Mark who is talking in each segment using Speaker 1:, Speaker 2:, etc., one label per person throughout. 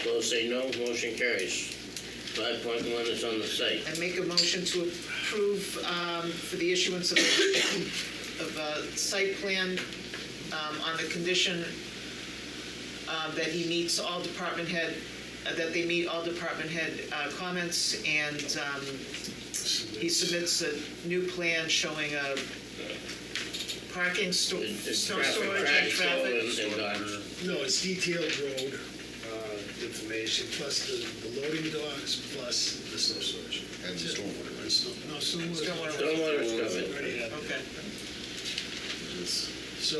Speaker 1: Opposed, say no. Motion carries. Five point one is on the site.
Speaker 2: I make a motion to approve um, for the issuance of, of a site plan um, on the condition um, that he meets all department head, uh, that they meet all department head uh, comments, and um, he submits a new plan showing a parking, sto-
Speaker 1: It- It's
Speaker 2: snow
Speaker 1: traffic,
Speaker 2: storage and
Speaker 1: traffic,
Speaker 2: traffic.
Speaker 1: and- and docks.
Speaker 3: No, it's detailed road uh, information, plus the the loading docks, plus the snow storage.
Speaker 4: And the stormwater.
Speaker 3: And snow- No, stormwater.
Speaker 2: Stormwater.
Speaker 1: Stormwater's covered.
Speaker 3: Already had that.
Speaker 2: Okay,
Speaker 3: So,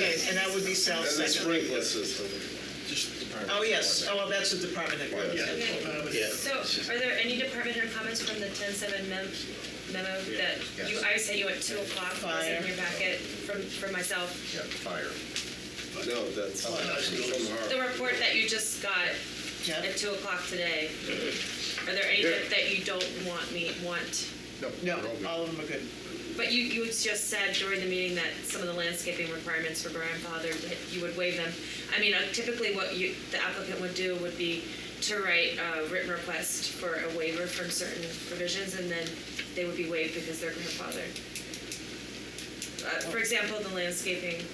Speaker 2: Okay, and that would be Sal's
Speaker 4: And the
Speaker 2: second.
Speaker 4: sprinkler system.
Speaker 2: Oh, yes, oh, well, that's a department head.
Speaker 4: Yeah.
Speaker 3: yeah. um,
Speaker 1: Yeah.
Speaker 5: So are there any department head comments from the ten seven mem- memo that you, I sent you at two o'clock, it was in your packet from, from myself?
Speaker 4: Yeah, fire. No, that's
Speaker 3: Oh,
Speaker 4: from
Speaker 5: The
Speaker 4: our,
Speaker 5: report that you just got
Speaker 2: Yeah.
Speaker 5: at two o'clock today, are there any that that you don't want me, want?
Speaker 2: No,
Speaker 4: no. we're all
Speaker 2: all of them are good.
Speaker 5: But you, you just said during the meeting that some of the landscaping requirements for grandfather, you would waive them. I mean, uh, typically what you, the applicant would do would be to write a written request for a waiver from certain provisions, and then they would be waived because they're grandfathered. Uh, For example, the landscaping,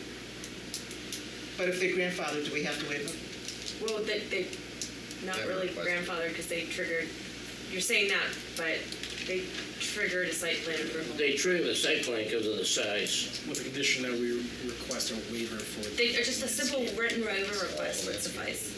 Speaker 2: But if they're grandfathered, do we have to waive them?
Speaker 5: well, they, they, not
Speaker 4: Never
Speaker 5: really
Speaker 4: requested.
Speaker 5: grandfathered because they triggered, you're saying that, but they triggered a site plan approval.
Speaker 1: They trigger the site plan because of the size.
Speaker 6: With the condition that we request a waiver for. the-
Speaker 5: They are just a simple written waiver request would suffice.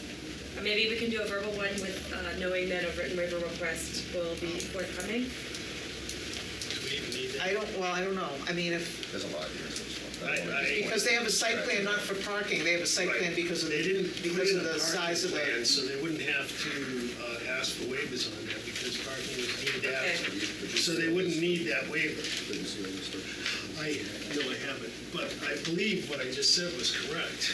Speaker 5: Or Maybe we can do a verbal one with, uh, knowing that a written waiver request will be forthcoming.
Speaker 3: do we even need that?
Speaker 2: I don't, well, I don't know. I mean, if,
Speaker 4: there's a lot here. so it's not-
Speaker 3: I- I-
Speaker 2: because they have a site plan not for parking, they have a site plan
Speaker 3: Right.
Speaker 2: because of,
Speaker 3: They didn't put
Speaker 2: because
Speaker 3: in
Speaker 2: of
Speaker 3: a
Speaker 2: the
Speaker 3: parking
Speaker 2: size of
Speaker 3: plan,
Speaker 2: the,
Speaker 3: So they wouldn't have to uh, ask for waivers on that, because parking was deemed
Speaker 5: Okay.
Speaker 3: after. So they wouldn't need that waiver.
Speaker 4: Didn't see any structure.
Speaker 3: I, no, I haven't, but I believe what I just said was correct.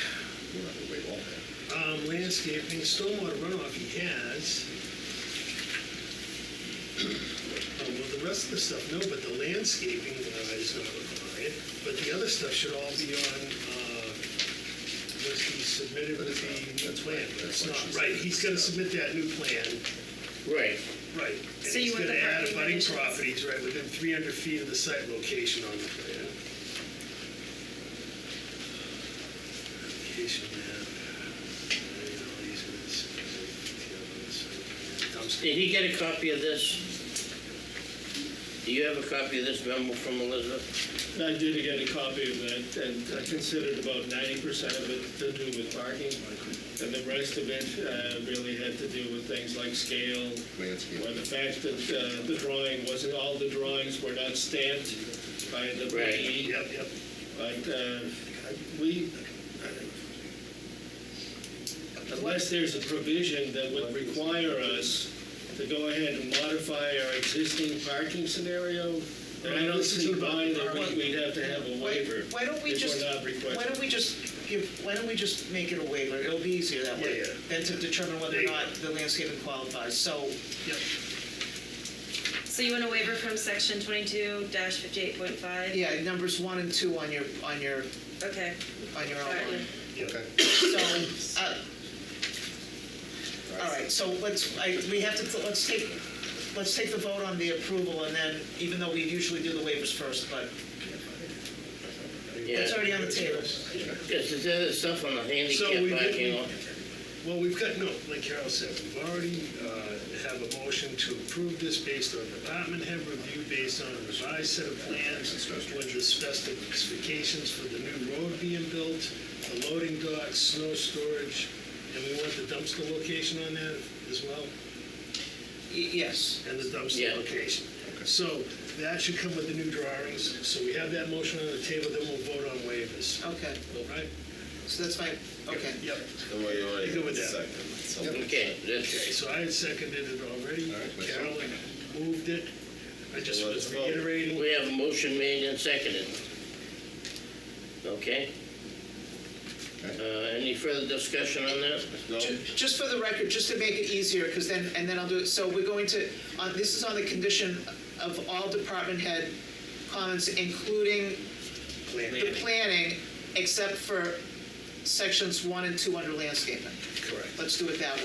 Speaker 4: We're not gonna waive all that.
Speaker 3: Um, landscaping, stormwater runoff he has. Oh, Well, the rest of the stuff, no, but the landscaping uh, is not required, but the other stuff should all be on, uh, was he submitted with the new
Speaker 4: That's
Speaker 3: plan,
Speaker 4: right,
Speaker 3: but it's
Speaker 4: that's what
Speaker 3: not,
Speaker 4: she said.
Speaker 3: right, he's gonna submit that new plan,
Speaker 1: Right.
Speaker 3: right. And
Speaker 5: So you
Speaker 3: he's
Speaker 5: want the
Speaker 3: gonna add
Speaker 5: parking
Speaker 3: abutting
Speaker 5: conditions?
Speaker 3: properties, right, within three hundred feet of the site location on the plan. Location map. And all these are the same, detail on the site plan. Dumpster
Speaker 1: Did he get a copy of this? Do you have a copy of this memo from Elizabeth?
Speaker 7: I did get a copy of that, and I considered about ninety percent of it to do with parking, and the rest of it uh, really had to do with things like scale, or
Speaker 4: Landscape.
Speaker 7: the fact that uh, the drawing wasn't, all the drawings were not stamped by the
Speaker 1: Right.
Speaker 7: PE.
Speaker 3: Yep, yep.
Speaker 7: But uh, we, unless there's a provision that would require us to go ahead and modify our existing parking scenario, then I
Speaker 3: Well,
Speaker 7: don't
Speaker 3: this
Speaker 7: see
Speaker 3: isn't about
Speaker 7: why
Speaker 3: the
Speaker 7: that we-
Speaker 3: parking.
Speaker 7: we'd have to have a
Speaker 2: why
Speaker 7: waiver.
Speaker 2: why don't we
Speaker 7: if we're
Speaker 2: just,
Speaker 7: not
Speaker 2: why
Speaker 7: requesting.
Speaker 2: don't we just give, why don't we just make it a waiver? It'll be easier that way
Speaker 3: Yeah, yeah.
Speaker 2: than to determine whether or
Speaker 3: There you
Speaker 2: not the landscaping qualifies. So,
Speaker 5: So you want a waiver from section twenty-two dash fifty-eight point five?
Speaker 2: yeah, numbers one and two on your, on your,
Speaker 5: Okay,
Speaker 2: on your
Speaker 5: all right.
Speaker 2: outline.
Speaker 4: Okay.
Speaker 2: So, uh, all right, so let's, I, we have to, let's take, let's take the vote on the approval and then, even though we usually do the waivers first, but
Speaker 1: Yeah.
Speaker 2: it's already on the table.
Speaker 1: Yes, is there stuff on the
Speaker 3: So we
Speaker 1: handicap parking?
Speaker 3: didn't-
Speaker 1: lot?
Speaker 3: Well, we've got, no, like Carol said, we've already uh, have a motion to approve this based on department head review, based on a revised set of plans with the specifications for the new road being built, the loading docks, snow storage, and we want the dumpster location on that as well,
Speaker 2: Y- Yes.
Speaker 3: and the
Speaker 1: Yeah.
Speaker 3: dumpster location. So that should come with the new drawings, so we have that motion on the table, then we'll vote on waivers,
Speaker 2: Okay,
Speaker 3: right?
Speaker 2: so that's my, okay.
Speaker 3: Yep,
Speaker 4: Go
Speaker 3: Go with that.
Speaker 1: Okay,
Speaker 3: Okay,
Speaker 1: that's,
Speaker 3: so I had seconded it already.
Speaker 4: All right, but-
Speaker 3: Carol moved it. I just
Speaker 4: Well,
Speaker 3: was
Speaker 4: let's vote.
Speaker 3: reiterating.
Speaker 1: we have a motion made and seconded. Okay? Uh, any further discussion on that?
Speaker 4: No,
Speaker 2: Ju- Just for the record, just to make it easier, because then, and then I'll do it, so we're going to, uh, this is on the condition of all department head comments, including the planning, except for sections one and two under landscaping.
Speaker 3: Correct.
Speaker 2: Let's do it that way.